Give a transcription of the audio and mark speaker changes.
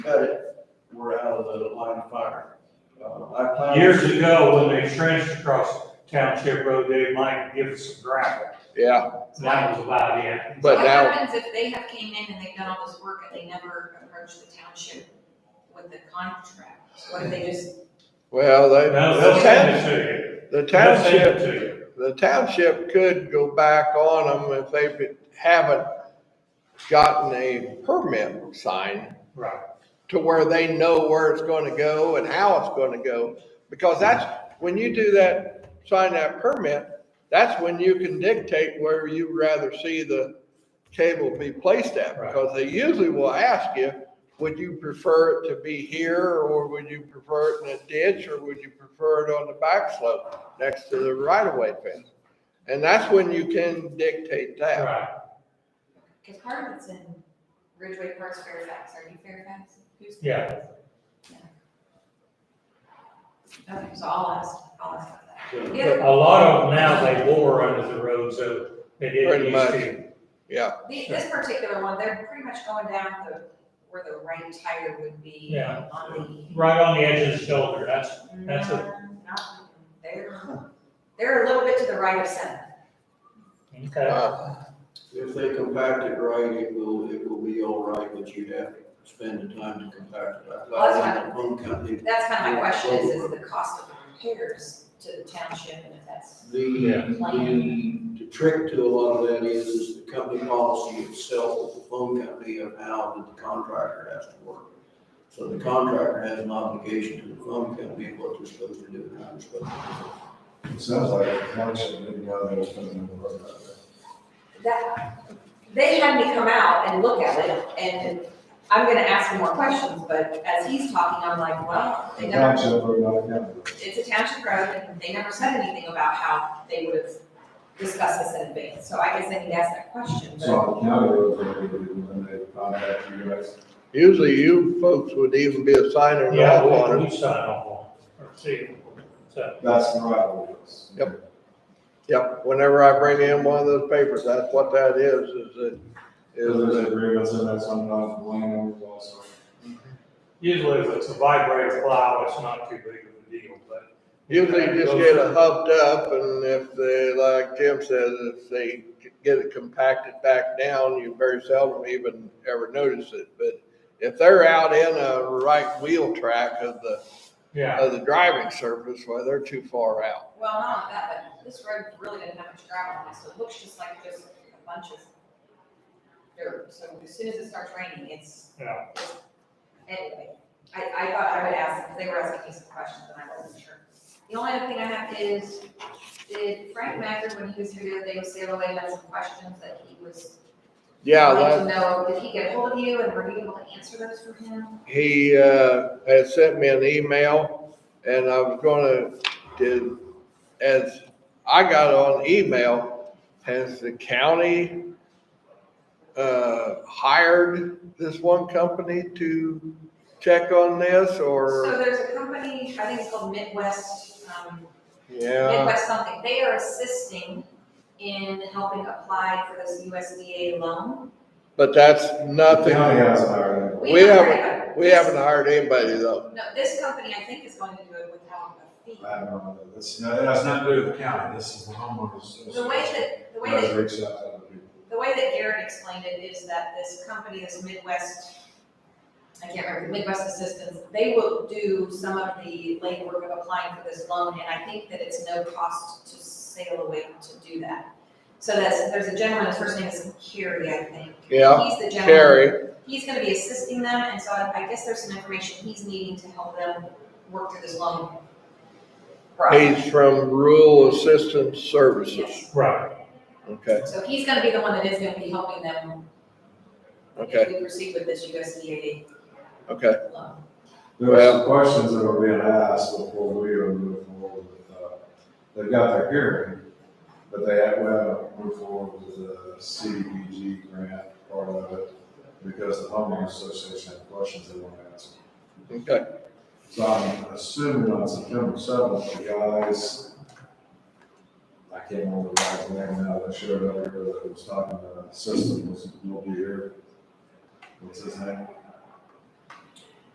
Speaker 1: cut it, we're out of the line of fire. Uh, I plowed.
Speaker 2: Years ago, when they trenched across Township Road, they might give us some gravel.
Speaker 3: Yeah,
Speaker 2: That was about it.
Speaker 3: but
Speaker 4: What
Speaker 3: now,
Speaker 4: happens if they have came in and they've done all this work and they never approached the township with the contract? What if they just,
Speaker 3: well,
Speaker 2: No, they'll send
Speaker 3: they,
Speaker 2: it to you.
Speaker 3: the
Speaker 2: They'll send
Speaker 3: township,
Speaker 2: it to you.
Speaker 3: the township could go back on them if they haven't gotten a permit signed.
Speaker 2: Right.
Speaker 3: to where they know where it's going to go and how it's going to go. Because that's, when you do that, sign that permit, that's when you can dictate where you'd rather see the cable be placed at.
Speaker 2: Right.
Speaker 3: Because they usually will ask you, would you prefer it to be here or would you prefer it in a ditch or would you prefer it on the back slope next to the right of way fence? And that's when you can dictate that.
Speaker 2: Right.
Speaker 4: because part of it's in Ridgeway Parks Fairfax, are you Fairfax? Who's
Speaker 2: Yeah.
Speaker 4: Fairfax? Yeah. Okay, so I'll ask, I'll ask about
Speaker 2: But
Speaker 4: that.
Speaker 2: A lot of them now, they bore under the road, so they didn't
Speaker 3: Pretty
Speaker 2: used
Speaker 3: much.
Speaker 2: to.
Speaker 3: Yeah,
Speaker 4: The- This particular one, they're pretty much going down the, where the right tire would be
Speaker 2: Yeah.
Speaker 4: on the.
Speaker 2: Right on the edge of the shoulder, that's, That's a-
Speaker 4: No, not- They're, they're a little bit to the right of center.
Speaker 2: okay.
Speaker 3: uh,
Speaker 1: If they compact it right, it will, it will be all right, but you'd have to spend the time to compact it. I
Speaker 4: Well, that's
Speaker 1: plowed one company,
Speaker 4: That's kind of my question is, is the cost of the repairs to the township and if that's,
Speaker 2: Yeah.
Speaker 1: The, the, the trick to a lot of that is, is the company policy itself, the phone company of how that the contractor has to work. So the contractor has an obligation to the phone company of what they're supposed to do and how they're supposed to do. it.
Speaker 5: It sounds like a township, maybe now they're coming in the road.
Speaker 4: that, they had me come out and look at it and I'm gonna ask him more questions, but as he's talking, I'm like, well, they never,
Speaker 5: Township road, not a county road.
Speaker 4: it's a township road and they never said anything about how they would have discussed this in advance. So I guess I need to ask that question,
Speaker 5: So
Speaker 4: but
Speaker 5: on the county road, when they contact you guys,
Speaker 3: usually you folks would even be a signer of
Speaker 2: Yeah,
Speaker 3: that water.
Speaker 2: we, we sign off on, it, or see. it. So,
Speaker 5: that's the right of ways.
Speaker 3: Yep. Yep, whenever I bring in one of those papers, that's what that is, is it,
Speaker 5: Because
Speaker 3: is
Speaker 5: there's
Speaker 3: it,
Speaker 5: agreements in there, some not blame them also.
Speaker 2: usually if it's a vibrator plow, it's not too big of a deal, but.
Speaker 3: usually you just get it huffed up and if they, like Jim says, if they get it compacted back down, you very seldom even ever notice it, but if they're out in a right wheel track of the,
Speaker 2: Yeah,
Speaker 3: of the driving surface, well, they're too far out.
Speaker 4: well, not only that, but this road really didn't have much gravel on it, so it looks just like just a bunch of dirt. So as soon as it starts raining, it's
Speaker 2: yeah,
Speaker 4: Anyway, I, I thought I would ask, because they were asking me some questions and I wasn't sure. The only other thing I have is, did Frank Macker, when he was here the other day, say away had some questions that he was
Speaker 3: Yeah, that,
Speaker 4: wanting to know, did he get hold of you and were you able to answer those for him?
Speaker 3: he uh, had sent me an email, and I was gonna, did, as I got on email, has the county uh, hired this one company to check on this,
Speaker 4: So
Speaker 3: or,
Speaker 4: there's a company, I think it's called Midwest, um,
Speaker 3: yeah,
Speaker 4: Midwest something, they are assisting in helping apply for this USDA loan.
Speaker 3: but that's
Speaker 5: The
Speaker 3: nothing.
Speaker 5: county has an iron.
Speaker 3: We
Speaker 4: haven't
Speaker 3: haven't-
Speaker 4: heard of it.
Speaker 3: We haven't hired anybody though.
Speaker 4: No, this company, I think, is going to do it without a fee.
Speaker 5: I don't know, that's, no, that has nothing to do with the county, this is the homeowners.
Speaker 4: The way that, the way that
Speaker 5: Guys reach out to other people.
Speaker 4: The way that Garrett explained it is that this company, this Midwest, I can't remember, the Midwest Assistance, they will do some of the legwork of applying for this loan, and I think that it's no cost to sail away to do that. So that's, there's a gentleman, his first name is Carey, I think.
Speaker 3: Yeah,
Speaker 4: He's the gentleman,
Speaker 3: Terry,
Speaker 4: he's gonna be assisting them, and so I I guess there's some information he's needing to help them work through this loan. process.
Speaker 3: he's from Rural Assistance Services.
Speaker 4: Yes.
Speaker 2: right,
Speaker 3: Okay,
Speaker 4: So he's gonna be the one that is gonna be helping them
Speaker 3: okay,
Speaker 4: if we proceed with this USDA
Speaker 3: okay.
Speaker 4: loan.
Speaker 5: There were some questions that were being asked before we were moving forward with, uh, they've got their hearing, but they had, we haven't moved forward with the CDBG grant part of it because the homeowners association had questions they wanted to answer.
Speaker 3: Okay,
Speaker 5: So I'm assuming on September seventh, the guys, I can't remember the guy's name now, that showed up here that was talking, uh, system was, will be here. What's his name?